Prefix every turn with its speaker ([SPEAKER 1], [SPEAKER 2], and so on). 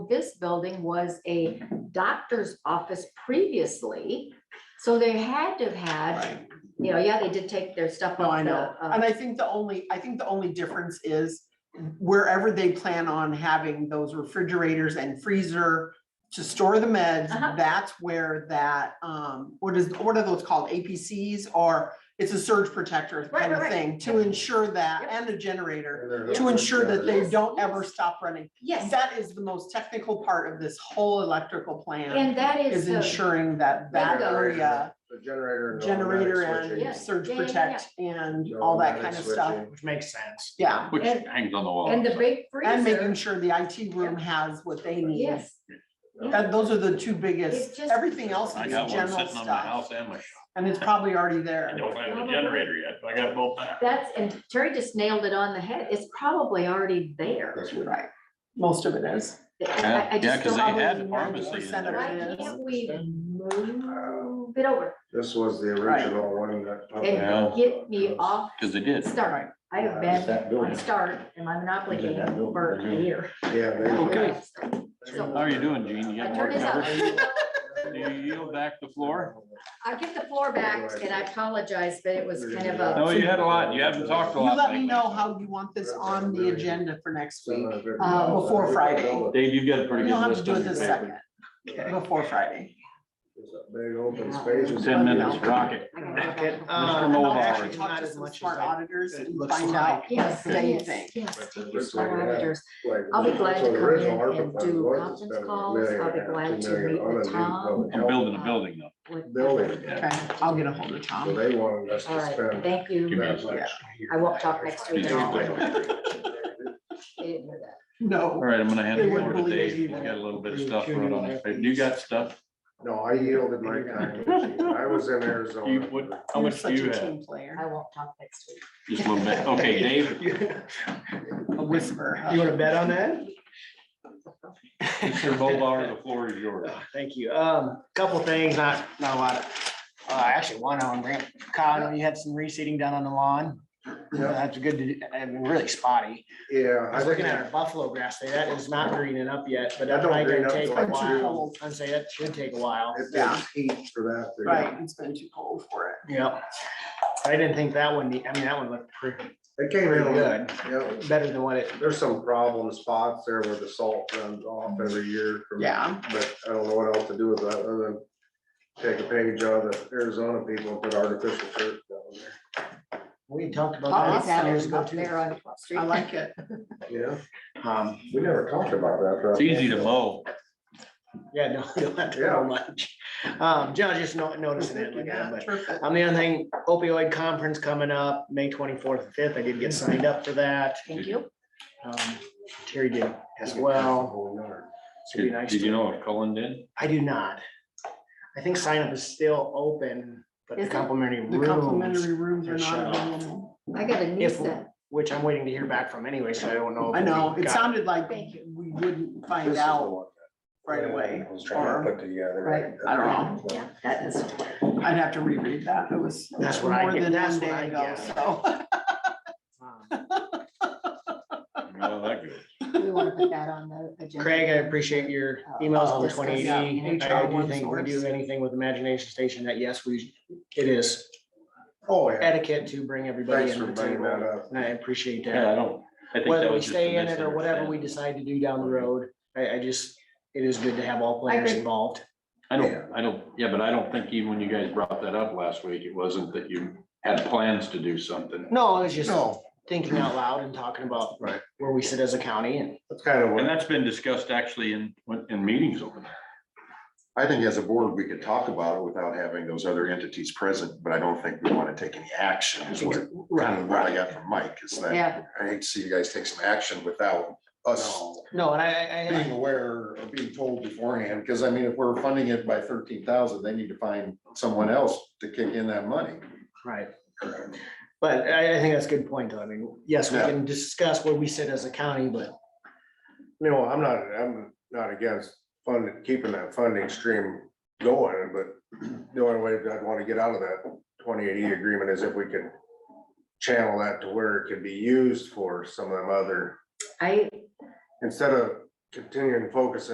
[SPEAKER 1] this building was a doctor's office previously. So they had to have had,
[SPEAKER 2] Right.
[SPEAKER 1] you know, yeah, they did take their stuff
[SPEAKER 2] No, I
[SPEAKER 1] off the,
[SPEAKER 2] know.
[SPEAKER 1] uh,
[SPEAKER 2] And I think the only, I think the only difference is wherever they plan on having those refrigerators and freezer to store the meds,
[SPEAKER 1] Uh-huh.
[SPEAKER 2] that's where that, um, what is, what are those called? APCs or it's a surge protector
[SPEAKER 1] Right,
[SPEAKER 2] kind of
[SPEAKER 1] right, right.
[SPEAKER 2] thing to ensure that
[SPEAKER 1] Yep.
[SPEAKER 2] and a generator
[SPEAKER 3] To
[SPEAKER 2] to ensure that they
[SPEAKER 1] Yes,
[SPEAKER 2] don't ever
[SPEAKER 1] yes.
[SPEAKER 2] stop running.
[SPEAKER 1] yes,
[SPEAKER 2] That is the most technical part of this whole electrical plan
[SPEAKER 1] and that is
[SPEAKER 2] is
[SPEAKER 1] the,
[SPEAKER 2] ensuring that that
[SPEAKER 1] Bingo.
[SPEAKER 2] area
[SPEAKER 3] The generator. and
[SPEAKER 2] generator
[SPEAKER 3] automatic switching.
[SPEAKER 2] and
[SPEAKER 1] Yes.
[SPEAKER 2] surge
[SPEAKER 1] Yeah, yeah, yeah,
[SPEAKER 2] protect and
[SPEAKER 3] The
[SPEAKER 2] all that
[SPEAKER 3] automatic
[SPEAKER 2] kind of stuff.
[SPEAKER 3] switching.
[SPEAKER 4] which makes sense.
[SPEAKER 2] Yeah,
[SPEAKER 5] Which
[SPEAKER 1] And-
[SPEAKER 5] hangs on the wall.
[SPEAKER 1] and the
[SPEAKER 5] so.
[SPEAKER 1] big
[SPEAKER 2] and making
[SPEAKER 1] freezer,
[SPEAKER 2] sure the IT room has what they need.
[SPEAKER 1] yes.
[SPEAKER 2] That, those are the two
[SPEAKER 1] It's
[SPEAKER 2] biggest,
[SPEAKER 1] just-
[SPEAKER 2] everything else
[SPEAKER 5] I
[SPEAKER 2] is
[SPEAKER 5] got one
[SPEAKER 2] general
[SPEAKER 5] sitting on my
[SPEAKER 2] stuff,
[SPEAKER 5] house and my shop.
[SPEAKER 2] and it's probably already
[SPEAKER 5] I
[SPEAKER 2] there.
[SPEAKER 5] don't have a generator yet, but I got both. back.
[SPEAKER 1] That's, and Terry just nailed it on the head. It's probably already there.
[SPEAKER 3] That's what-
[SPEAKER 2] Right, most of it is.
[SPEAKER 1] I- I
[SPEAKER 5] Yeah,
[SPEAKER 1] just
[SPEAKER 5] 'cause
[SPEAKER 1] don't-
[SPEAKER 5] they had
[SPEAKER 2] probably
[SPEAKER 5] pharmacy in
[SPEAKER 2] 90% of
[SPEAKER 5] there.
[SPEAKER 2] it
[SPEAKER 1] Why
[SPEAKER 2] is.
[SPEAKER 1] can't we move it over?
[SPEAKER 3] This was the
[SPEAKER 2] Right.
[SPEAKER 3] original one that.
[SPEAKER 1] And get me off
[SPEAKER 5] Cause they did.
[SPEAKER 1] start. I have been
[SPEAKER 3] That building.
[SPEAKER 1] on start and my monopoly game
[SPEAKER 3] Did that building.
[SPEAKER 1] for a year.
[SPEAKER 3] Yeah. they-
[SPEAKER 5] Okay.
[SPEAKER 1] So-
[SPEAKER 5] How are you doing, Gene? You
[SPEAKER 1] I
[SPEAKER 5] got more
[SPEAKER 1] turn this
[SPEAKER 5] cover?
[SPEAKER 1] up.
[SPEAKER 5] Do you yield back the floor?
[SPEAKER 1] I give the floor back and I apologize, but it was kind of a.
[SPEAKER 5] No, you had a lot. You haven't talked a
[SPEAKER 2] You
[SPEAKER 5] lot.
[SPEAKER 2] let me
[SPEAKER 5] lately.
[SPEAKER 2] know how you want this on the agenda for next week.
[SPEAKER 1] Uh,
[SPEAKER 2] before Friday.
[SPEAKER 5] Dave, you've got a
[SPEAKER 2] You
[SPEAKER 5] pretty good
[SPEAKER 2] don't have to
[SPEAKER 5] list.
[SPEAKER 2] do it
[SPEAKER 5] on your
[SPEAKER 2] this
[SPEAKER 5] paper.
[SPEAKER 2] second, before Friday.
[SPEAKER 3] It's a Big open space.
[SPEAKER 2] Let
[SPEAKER 5] Ten
[SPEAKER 2] me
[SPEAKER 5] minutes,
[SPEAKER 2] know.
[SPEAKER 5] rocket.
[SPEAKER 1] I gotta go
[SPEAKER 5] um,
[SPEAKER 1] back.
[SPEAKER 4] Uh,
[SPEAKER 2] And I'll
[SPEAKER 5] Mulbauer.
[SPEAKER 2] actually
[SPEAKER 4] Not
[SPEAKER 2] talk to
[SPEAKER 4] as
[SPEAKER 2] some
[SPEAKER 4] much as
[SPEAKER 2] smart
[SPEAKER 4] I-
[SPEAKER 2] auditors
[SPEAKER 4] it
[SPEAKER 2] and
[SPEAKER 4] looks
[SPEAKER 2] find
[SPEAKER 4] like.
[SPEAKER 2] out
[SPEAKER 1] Yes,
[SPEAKER 2] same
[SPEAKER 1] yes,
[SPEAKER 2] thing.
[SPEAKER 1] yes. take
[SPEAKER 3] But it
[SPEAKER 1] your
[SPEAKER 3] looks like
[SPEAKER 1] smart
[SPEAKER 3] it has-
[SPEAKER 1] auditors.
[SPEAKER 3] Like,
[SPEAKER 1] I'll be
[SPEAKER 3] that's
[SPEAKER 1] glad to
[SPEAKER 3] what the
[SPEAKER 1] come in
[SPEAKER 3] original ARPA
[SPEAKER 1] and
[SPEAKER 3] funds
[SPEAKER 1] do
[SPEAKER 3] was,
[SPEAKER 1] conference
[SPEAKER 3] spending a
[SPEAKER 1] calls.
[SPEAKER 3] million
[SPEAKER 1] I'll be
[SPEAKER 3] and a half,
[SPEAKER 1] glad
[SPEAKER 3] two
[SPEAKER 1] to
[SPEAKER 3] million
[SPEAKER 1] meet
[SPEAKER 3] on
[SPEAKER 1] with
[SPEAKER 3] a new
[SPEAKER 1] Tom.
[SPEAKER 3] public
[SPEAKER 5] I'm
[SPEAKER 3] health
[SPEAKER 5] building a building though.
[SPEAKER 1] with-
[SPEAKER 3] Building,
[SPEAKER 5] Yeah.
[SPEAKER 2] Okay, I'll get a hold of
[SPEAKER 3] so
[SPEAKER 2] Tom.
[SPEAKER 3] they wanted us
[SPEAKER 1] All
[SPEAKER 3] to
[SPEAKER 1] right,
[SPEAKER 3] spend.
[SPEAKER 1] thank
[SPEAKER 5] Give me
[SPEAKER 1] you.
[SPEAKER 5] a
[SPEAKER 3] that much.
[SPEAKER 1] I won't talk next week at all. I didn't hear that.
[SPEAKER 5] All
[SPEAKER 2] No,
[SPEAKER 5] right, I'm gonna hand
[SPEAKER 2] They
[SPEAKER 5] the floor
[SPEAKER 2] wouldn't
[SPEAKER 5] to
[SPEAKER 2] believe
[SPEAKER 5] Dave. He's
[SPEAKER 2] either.
[SPEAKER 5] got a little bit of stuff running on his paper. You got stuff?
[SPEAKER 3] No, I yielded my time. I was in Arizona.
[SPEAKER 5] You, what, how
[SPEAKER 2] you're
[SPEAKER 5] much do
[SPEAKER 2] such
[SPEAKER 5] you
[SPEAKER 2] a
[SPEAKER 5] have?
[SPEAKER 2] team player,
[SPEAKER 1] I won't talk next week.
[SPEAKER 5] Just a little bit. Okay, Dave,
[SPEAKER 2] a whisperer. huh?
[SPEAKER 4] You wanna bet on that?
[SPEAKER 5] Mr. Mulbauer, the floor is yours.
[SPEAKER 4] Thank you. Um, couple things, not, not a lot. Uh, actually, one on Grant, Kyle, you had some reseeding done on the lawn.
[SPEAKER 3] Yeah.
[SPEAKER 4] That's good to, I mean, really spotty.
[SPEAKER 3] Yeah.
[SPEAKER 4] I was looking at
[SPEAKER 3] think-
[SPEAKER 4] our buffalo grass there. That is not greening up yet, but that's
[SPEAKER 3] That don't
[SPEAKER 4] probably
[SPEAKER 3] green up
[SPEAKER 4] gonna take a
[SPEAKER 3] till June.
[SPEAKER 4] while. I'd say that should take a while.
[SPEAKER 3] It
[SPEAKER 2] Yeah.
[SPEAKER 3] takes heat for that. to-
[SPEAKER 2] Right, it's been too cold for it.
[SPEAKER 4] Yep. I didn't think that one, need- I mean, that one looked pretty,
[SPEAKER 3] It came
[SPEAKER 4] pretty
[SPEAKER 3] in, yeah,
[SPEAKER 4] good, better than what it,
[SPEAKER 3] there's some problem spots there where the salt runs off every year. from-
[SPEAKER 2] Yeah.
[SPEAKER 3] But I don't know what else to do with that, other than take a page out of the Arizona people and put artificial turf down
[SPEAKER 4] we talked
[SPEAKER 2] Uh-huh.
[SPEAKER 4] about
[SPEAKER 1] It's
[SPEAKER 4] that years
[SPEAKER 1] out
[SPEAKER 4] ago
[SPEAKER 1] Oh, up
[SPEAKER 4] too.
[SPEAKER 1] there on 12th Street.
[SPEAKER 2] I like it.
[SPEAKER 3] there. Yeah,
[SPEAKER 4] Um,
[SPEAKER 3] we never talked about that. right?
[SPEAKER 5] It's easy to mow.
[SPEAKER 4] yeah, no, you don't have to
[SPEAKER 3] Yeah.
[SPEAKER 4] know much. Um, John, just no- noticing it like
[SPEAKER 2] Yeah,
[SPEAKER 4] that, but.
[SPEAKER 2] terrific.
[SPEAKER 4] Um, the other thing, opioid conference coming up, May twenty-fourth and fifth. I did get signed up for that.
[SPEAKER 1] Thank you.
[SPEAKER 4] Um, Terry did as well. So it'd be
[SPEAKER 5] Did
[SPEAKER 4] nice
[SPEAKER 5] did you
[SPEAKER 4] to-
[SPEAKER 5] know what Cullen did?
[SPEAKER 4] I do not. I think sign up is still open, but the
[SPEAKER 1] Is it?
[SPEAKER 4] complimentary
[SPEAKER 2] The
[SPEAKER 4] rooms,
[SPEAKER 2] complimentary rooms are
[SPEAKER 4] Michelle.
[SPEAKER 2] not available.
[SPEAKER 1] I got a niece
[SPEAKER 4] If-
[SPEAKER 1] that,
[SPEAKER 4] which I'm waiting to hear back from anyway, so I don't know. if
[SPEAKER 2] I know,
[SPEAKER 4] Oh, we
[SPEAKER 2] it
[SPEAKER 4] got-
[SPEAKER 2] sounded like
[SPEAKER 1] Thank
[SPEAKER 2] we wouldn't find out right away. or-
[SPEAKER 3] Put together.
[SPEAKER 1] Right.
[SPEAKER 2] I don't
[SPEAKER 1] yeah, that is,
[SPEAKER 2] I'd have to reread that. It was it
[SPEAKER 4] That's
[SPEAKER 2] was
[SPEAKER 4] what I
[SPEAKER 2] more
[SPEAKER 4] get-
[SPEAKER 2] than
[SPEAKER 4] that's
[SPEAKER 2] one
[SPEAKER 4] what I
[SPEAKER 2] day ago,
[SPEAKER 4] get.
[SPEAKER 2] so.
[SPEAKER 4] Um,
[SPEAKER 5] You know how that goes.
[SPEAKER 1] we want to put that on the agenda.
[SPEAKER 4] Craig, I appreciate your
[SPEAKER 2] Uh,
[SPEAKER 4] emails
[SPEAKER 2] oh,
[SPEAKER 4] on the twenty eighty.
[SPEAKER 2] Yeah,
[SPEAKER 4] I
[SPEAKER 2] HR
[SPEAKER 4] do think we do
[SPEAKER 2] source.
[SPEAKER 4] anything with Imagination Station that, yes, we, it is
[SPEAKER 3] Oh, yeah,
[SPEAKER 4] etiquette to bring everybody
[SPEAKER 3] thanks
[SPEAKER 4] in
[SPEAKER 3] for
[SPEAKER 4] the
[SPEAKER 3] bringing
[SPEAKER 4] table.
[SPEAKER 3] that up.
[SPEAKER 4] And I appreciate that.
[SPEAKER 5] Yeah, I don't. I think that
[SPEAKER 4] whether we
[SPEAKER 5] was just a
[SPEAKER 4] stay in it or whatever we
[SPEAKER 5] misunderstanding.
[SPEAKER 4] decide to do down the road, I, I just, it is good to have all
[SPEAKER 1] I
[SPEAKER 4] players
[SPEAKER 1] agree.
[SPEAKER 4] involved.
[SPEAKER 5] I don't, I don't, yeah, but I don't think even when you guys brought that up last week, it wasn't that you had plans to do something.
[SPEAKER 4] No, I was just
[SPEAKER 3] No,
[SPEAKER 4] thinking out loud and talking about
[SPEAKER 3] Right.
[SPEAKER 4] where we sit as a county and
[SPEAKER 3] that's kind of
[SPEAKER 5] And
[SPEAKER 3] what,
[SPEAKER 5] that's been discussed actually in, in meetings over there.
[SPEAKER 6] I think as a board, we could talk about it without having those other entities present, but I don't think we want to take any action is what, kind of what I got from Mike is that
[SPEAKER 1] Yeah,
[SPEAKER 6] I hate to see you guys take some action without us
[SPEAKER 3] no,
[SPEAKER 4] No, and I, I, I-
[SPEAKER 6] being aware or being told beforehand, because I mean, if we're funding it by thirteen thousand, they need to find someone else to kick in that money.
[SPEAKER 4] right. But I, I think that's a good point, though. I mean, yes, we
[SPEAKER 6] Yeah.
[SPEAKER 4] can discuss where we sit as a county, but
[SPEAKER 3] no, I'm not, I'm not against funding, keeping that funding stream going, but the only way that I'd want to get out of that twenty eighty agreement is if we can channel that to where it can be used for some of them other,
[SPEAKER 1] I,
[SPEAKER 3] instead of continuing to focus